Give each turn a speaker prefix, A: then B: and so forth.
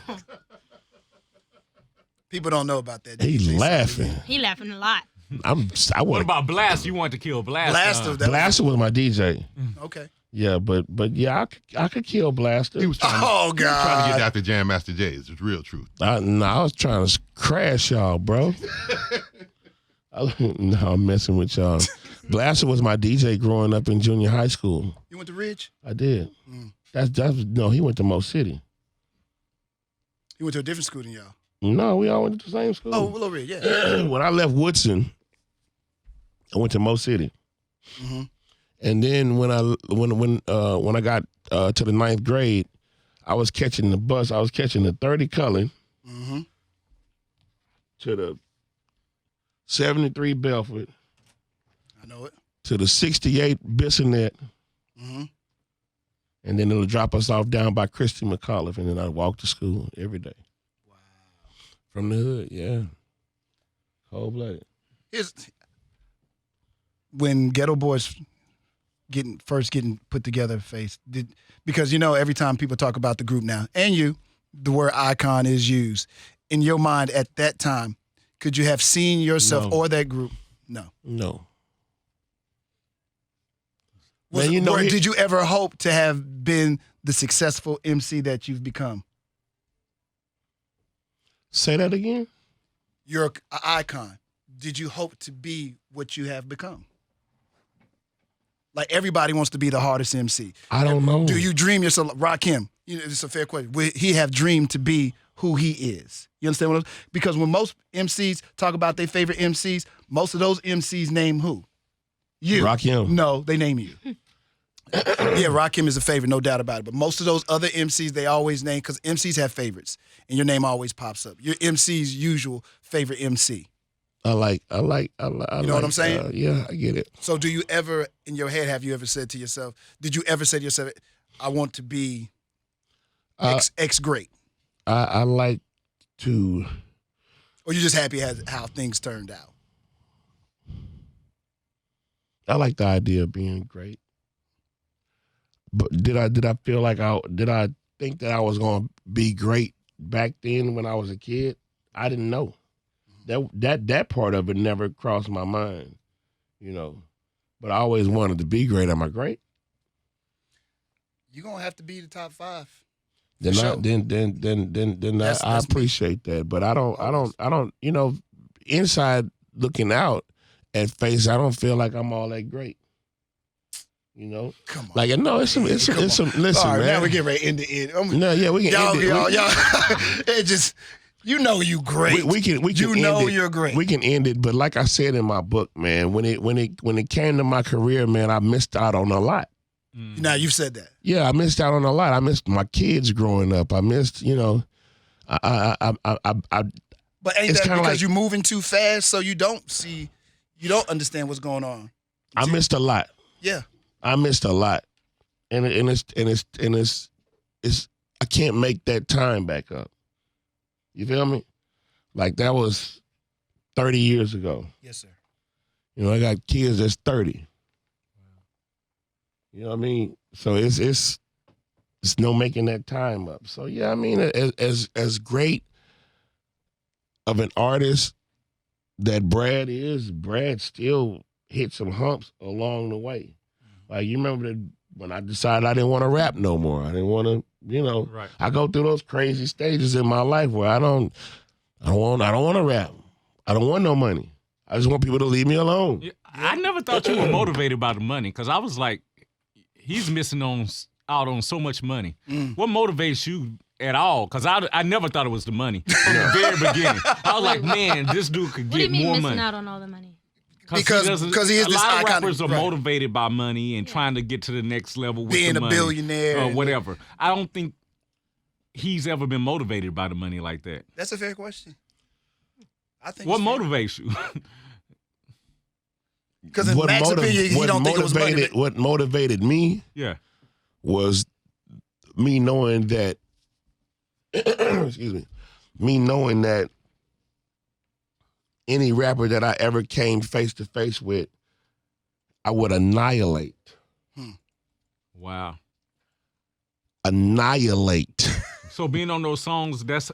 A: People don't know about that.
B: He
A: Jason.
B: laughing.
C: He laughing a lot.
B: I'm. I
D: What
B: want
D: about Blast? You want to kill Blast?
A: Blaster.
D: uh,
A: That
B: Blaster was my DJ.
A: Okay.
B: Yeah, but but yeah, I, c- I could kill Blaster.
E: He was trying,
A: Oh
E: he was trying to get
A: God.
E: Dr. Jam Master J. It's the real truth.
B: I, no, I was trying to s- crash y'all, bro. I, no, I'm messing with y'all. Blaster was my DJ growing up in junior high school.
A: You went to Ridge?
B: I did.
A: Mm.
B: That's that's no. He went to Mo City.
A: You went to a different school than y'all.
B: No, we all went to the same school.
A: Oh, Willow Ridge. Yeah.
B: when I left Woodson, I went to Mo City,
A: Mhm.
B: and then when I when when uh, when I got uh, to the ninth grade, I was catching the bus. I was catching the thirty Cullen
A: Mm-hmm.
B: to the seventy three Belford
A: I know it.
B: to the sixty eight Bissonnette,
A: Mm-hmm.
B: and then it'll drop us off down by Christy McAuliffe, and then I walk to school every day. From the hood, yeah, cold blooded.
A: Here's when Ghetto Boys getting first getting put together face did because you know every time people talk about the group now and you the word icon is used in your mind at that time could you have seen yourself
B: No.
A: or that group no
B: No,
A: Was,
B: Man, you know
A: or
B: he-
A: did you ever hope to have been the successful MC that you've become
B: say that again.
A: you're an icon. Did you hope to be what you have become? Like everybody wants to be the hardest MC.
B: I don't know.
A: Do you dream yourself, Rakim? You know, it's a fair question. Would he have dreamed to be who he is? You understand what I'm Because when most MCs talk about their favorite MCs, most of those MCs name who? You.
B: Rakim.
A: No, they name you. yeah, Rakim is a favorite, no doubt about it. But most of those other MCs, they always name because MCs have favorites, and your name always pops up. Your MC's usual favorite MC.
B: I like, I like, I like. I
A: You know what
B: like,
A: I'm saying?
B: uh, yeah, I get it.
A: So, do you ever, in your head, have you ever said to yourself, did you ever say to yourself, I want to be
B: Uh,
A: X, X great?
B: I, I like to.
A: Or you just happy has, how things turned out?
B: I like the idea of being great. But did I did I feel like I did I think that I was gonna be great back then when I was a kid? I didn't know. That that that part of it never crossed my mind, you know. But I always wanted to be great. Am I great?
A: You're going to have to be the top five.
B: Then,
A: For
B: I,
A: sure.
B: then then then then then
A: That's-
B: I, I
A: that's me.
B: appreciate that, but I don't I don't I don't you know inside looking out at face I don't feel like I'm all that great. You know,
A: Come on.
B: like no, it's some it's some,
A: Come
B: it's
A: on.
B: some listen
A: All right,
B: man.
A: now we get ready to end the end. I'm-
B: no, yeah, we can
A: y'all,
B: end it.
A: y'all,
B: we,
A: y'all. it just, you know you great.
B: we, we can we can
A: you
B: end
A: know
B: it.
A: you're great.
B: We can end it, but like I said in my book, man, when it when it when it came to my career, man, I missed out on a lot.
D: mm.
A: now, you've said that.
B: Yeah, I missed out on a lot. I missed my kids growing up. I missed, you know, I I I I, I, I
A: But ain't
B: It's
A: that
B: kinda
A: because
B: like-
A: you're moving too fast so you don't see, you don't understand what's going on?
B: I missed a lot.
A: Yeah.
B: I missed a lot, and it- and it's and it's and it's it's I can't make that time back up. You feel me? Like that was thirty years ago.
A: Yes, sir.
B: You know, I got kids that's thirty. You know what I mean? So it's it's it's no making that time up. So yeah, I mean, as as as great of an artist that Brad is, Brad still hit some humps along the way. Like you remember that when I decided I didn't want to rap no more. I didn't want to, you know.
D: Right.
B: I go through those crazy stages in my life where I don't, I don't want, I don't want to rap. I don't want no money. I just want people to leave me alone.
D: Yeah, I never thought you were motivated by the money because I was like, he's missing on s- out on so much money.
A: Mm.
D: What motivates you at all? Because I, I never thought it was the money from the very beginning. I was like, man, this dude could
C: What do you
D: get
C: mean
D: more
C: missing
D: money.
C: out on all the money?
A: Because-
D: doesn't-
A: because he is
D: a
A: this
D: lot
A: iconic-
D: of rappers are
A: right.
D: motivated by money and trying to get to the next level with
A: Being
D: the
A: a
D: money,
A: billionaire
D: or
B: Oh,
A: and-
D: whatever. I don't think he's ever been motivated by the money like that.
A: That's a fair question. I think
D: What
A: it's fair.
D: motivates you?
A: Because in Mac's
B: motiv-
A: opinion, he
B: what
A: don't think it was money.
B: motivated
A: but-
B: what motivated me
D: yeah.
B: was me knowing that. excuse me, me knowing that any rapper that I ever came face to face with, I would annihilate,
D: Wow.
B: annihilate.
D: So So being on those songs, that's